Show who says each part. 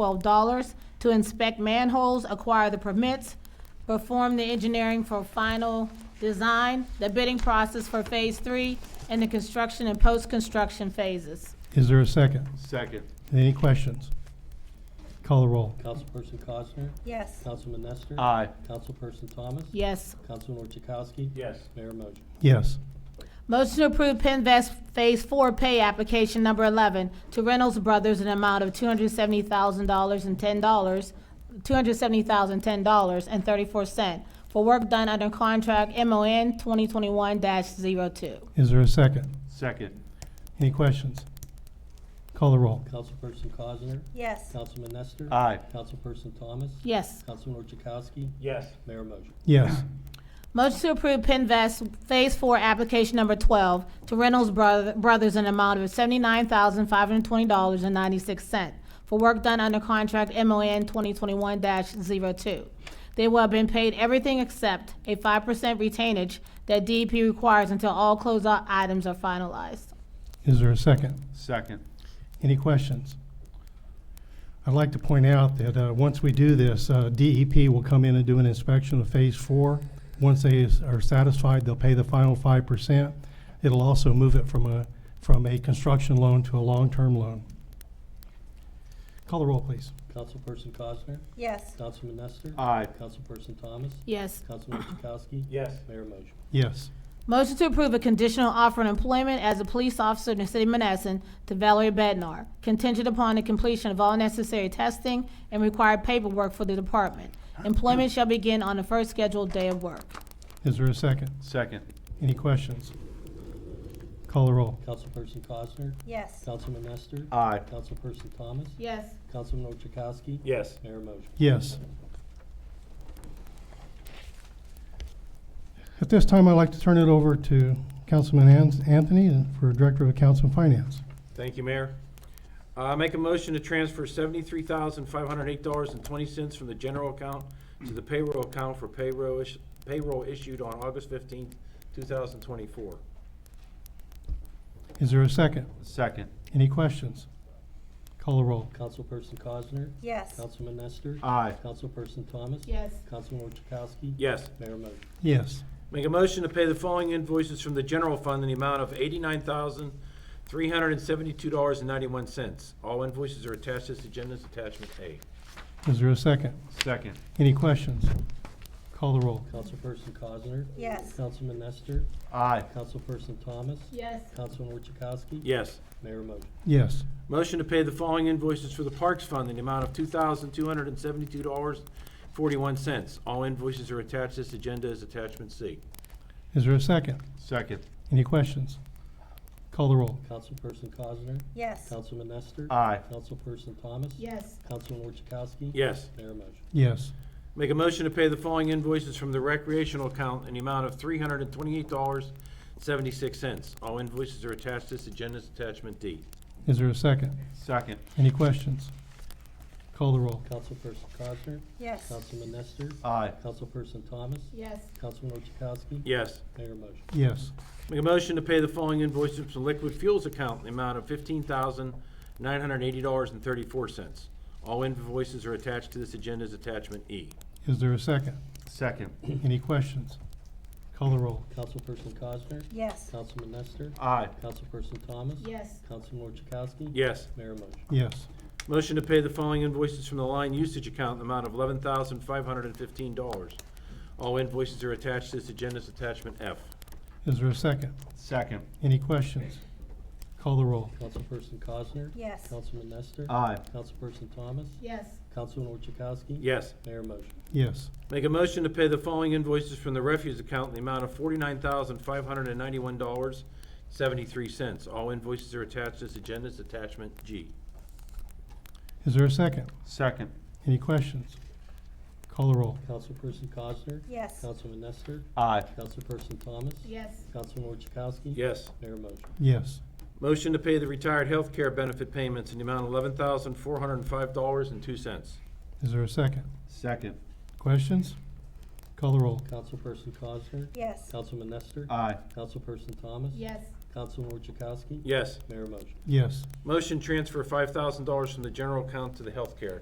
Speaker 1: twelve dollars to inspect manholes, acquire the permits, perform the engineering for final design, the bidding process for phase three, and the construction and post-construction phases.
Speaker 2: Is there a second?
Speaker 3: Second.
Speaker 2: Any questions? Call the roll.
Speaker 4: Councilperson Cosner?
Speaker 5: yes,
Speaker 4: Councilman Nestor?
Speaker 3: Aye.
Speaker 4: Councilperson Thomas?
Speaker 1: Yes.
Speaker 4: Councilman Orchakowski?
Speaker 3: Yes.
Speaker 4: Mayor motion.
Speaker 2: Yes.
Speaker 1: Motion to approve Pinvest Phase Four Pay Application Number Eleven to Reynolds Brothers in an amount of two hundred seventy thousand dollars and ten dollars, two hundred seventy thousand ten dollars and thirty-four cent for work done under contract MON twenty twenty-one 2
Speaker 2: Is there a second?
Speaker 3: Second.
Speaker 2: Any questions? Call the roll.
Speaker 4: Councilperson Cosner?
Speaker 5: yes,
Speaker 4: Councilman Nestor?
Speaker 3: Aye.
Speaker 4: Councilperson Thomas?
Speaker 1: Yes.
Speaker 4: Councilman Orchakowski?
Speaker 3: Yes.
Speaker 4: Mayor motion.
Speaker 2: Yes.
Speaker 1: Motion to approve Pinvest Phase Four Application Number Twelve to Reynolds Broth- Brothers in an amount of seventy-nine thousand five hundred twenty dollars and ninety-six cent for work done under contract MON twenty twenty-one 2 They will have been paid everything except a five percent retainage that DEP requires until all closeout items are finalized.
Speaker 2: Is there a second?
Speaker 3: Second.
Speaker 2: Any questions? I'd like to point out that uh, once we do this, uh, DEP will come in and do an inspection of Phase Four. Once they is- are satisfied, they'll pay the final five percent. It'll also move it from a, from a construction loan to a long-term loan. Call the roll, please.
Speaker 4: Councilperson Cosner?
Speaker 5: yes,
Speaker 4: Councilman Nestor?
Speaker 3: Aye.
Speaker 4: Councilperson Thomas?
Speaker 1: Yes.
Speaker 4: Councilman Orchakowski?
Speaker 3: Yes.
Speaker 4: Mayor motion.
Speaker 2: Yes.
Speaker 1: Motion to approve a conditional offer of employment as a police officer in the city of Menneson to Valerie Bednar, contingent upon the completion of all necessary testing and required paperwork for the department. Employment shall begin on the first scheduled day of work.
Speaker 2: Is there a second?
Speaker 3: Second.
Speaker 2: Any questions? Call the roll.
Speaker 4: Councilperson Cosner?
Speaker 5: yes,
Speaker 4: Councilman Nestor?
Speaker 3: Aye.
Speaker 4: Councilperson Thomas?
Speaker 1: Yes.
Speaker 4: Councilman Orchakowski?
Speaker 3: Yes.
Speaker 4: Mayor motion.
Speaker 2: Yes. At this time, I'd like to turn it over to Councilman An- Anthony for Director of Accounts and Finance.
Speaker 6: Thank you, Mayor. Uh, make a motion to transfer seventy-three thousand, five hundred eight dollars and twenty cents from the general account to the payroll account for payroll is, payroll issued on August fifteenth, two thousand twenty-four.
Speaker 2: Is there a second?
Speaker 3: Second.
Speaker 2: Any questions? Call the roll.
Speaker 4: Councilperson Cosner?
Speaker 5: yes,
Speaker 4: Councilman Nestor?
Speaker 3: Aye.
Speaker 4: Councilperson Thomas?
Speaker 1: Yes.
Speaker 4: Councilman Orchakowski?
Speaker 6: Yes.
Speaker 4: Mayor motion.
Speaker 2: Yes.
Speaker 6: Make a motion to pay the following invoices from the general fund in the amount of eighty-nine thousand, three hundred and seventy-two dollars and ninety-one cents. All invoices are attached to this agenda's attachment A.
Speaker 2: Is there a second?
Speaker 3: Second.
Speaker 2: Any questions? Call the roll.
Speaker 4: Councilperson Cosner?
Speaker 5: yes,
Speaker 4: Councilman Nestor?
Speaker 3: Aye.
Speaker 4: Councilperson Thomas?
Speaker 1: Yes.
Speaker 4: Councilman Orchakowski?
Speaker 6: Yes.
Speaker 4: Mayor motion.
Speaker 2: Yes.
Speaker 6: Motion to pay the following invoices for the Parks Fund in the amount of two thousand two hundred and seventy-two dollars forty-one cents. All invoices are attached. This agenda is attachment C.
Speaker 2: Is there a second?
Speaker 3: Second.
Speaker 2: Any questions? Call the roll.
Speaker 4: Councilperson Cosner?
Speaker 5: yes,
Speaker 4: Councilman Nestor?
Speaker 3: Aye.
Speaker 4: Councilperson Thomas?
Speaker 1: Yes.
Speaker 4: Councilman Orchakowski?
Speaker 6: Yes.
Speaker 4: Mayor motion.
Speaker 2: Yes.
Speaker 6: Make a motion to pay the following invoices from the recreational account in the amount of three hundred and twenty-eight dollars seventy-six cents. All invoices are attached. This agenda is attachment D.
Speaker 2: Is there a second?
Speaker 3: Second.
Speaker 2: Any questions? Call the roll.
Speaker 4: Councilperson Cosner?
Speaker 5: yes,
Speaker 4: Councilman Nestor?
Speaker 3: Aye.
Speaker 4: Councilperson Thomas?
Speaker 1: Yes.
Speaker 4: Councilman Orchakowski?
Speaker 6: Yes.
Speaker 4: Mayor motion.
Speaker 2: Yes.
Speaker 6: Make a motion to pay the following invoices from liquid fuels account in the amount of fifteen thousand nine hundred eighty dollars and thirty-four cents. All invoices are attached to this agenda as attachment E.
Speaker 2: Is there a second?
Speaker 3: Second.
Speaker 2: Any questions? Call the roll.
Speaker 4: Councilperson Cosner?
Speaker 5: yes,
Speaker 4: Councilman Nestor?
Speaker 3: Aye.
Speaker 4: Councilperson Thomas?
Speaker 1: Yes.
Speaker 4: Councilman Orchakowski?
Speaker 6: Yes.
Speaker 4: Mayor motion.
Speaker 2: Yes.
Speaker 6: Motion to pay the following invoices from the line usage account in the amount of eleven thousand five hundred and fifteen dollars. All invoices are attached to this agenda as attachment F.
Speaker 2: Is there a second?
Speaker 3: Second.
Speaker 2: Any questions? Call the roll.
Speaker 4: Councilperson Cosner?
Speaker 5: yes,
Speaker 4: Councilman Nestor?
Speaker 3: Aye.
Speaker 4: Councilperson Thomas?
Speaker 1: Yes.
Speaker 4: Councilman Orchakowski?
Speaker 6: Yes.
Speaker 4: Mayor motion.
Speaker 2: Yes.
Speaker 6: Make a motion to pay the following invoices from the refuse account in the amount of forty-nine thousand five hundred and ninety-one dollars seventy-three cents. All invoices are attached to this agenda as attachment G.
Speaker 2: Is there a second?
Speaker 3: Second.
Speaker 2: Any questions? Call the roll.
Speaker 4: Councilperson Cosner?
Speaker 5: yes,
Speaker 4: Councilman Nestor?
Speaker 3: Aye.
Speaker 4: Councilperson Thomas?
Speaker 1: Yes.
Speaker 4: Councilman Orchakowski?
Speaker 6: Yes.
Speaker 4: Mayor motion.
Speaker 2: Yes.
Speaker 6: Motion to pay the retired health care benefit payments in the amount of eleven thousand four hundred and five dollars and two cents.
Speaker 2: Is there a second?
Speaker 3: Second.
Speaker 2: Questions? Call the roll.
Speaker 4: Councilperson Cosner?
Speaker 5: yes,
Speaker 4: Councilman Nestor?
Speaker 3: Aye.
Speaker 4: Councilperson Thomas?
Speaker 1: Yes.
Speaker 4: Councilman Orchakowski?
Speaker 6: Yes.
Speaker 4: Mayor motion.
Speaker 2: Yes.
Speaker 6: Motion transfer five thousand dollars from the general account to the health care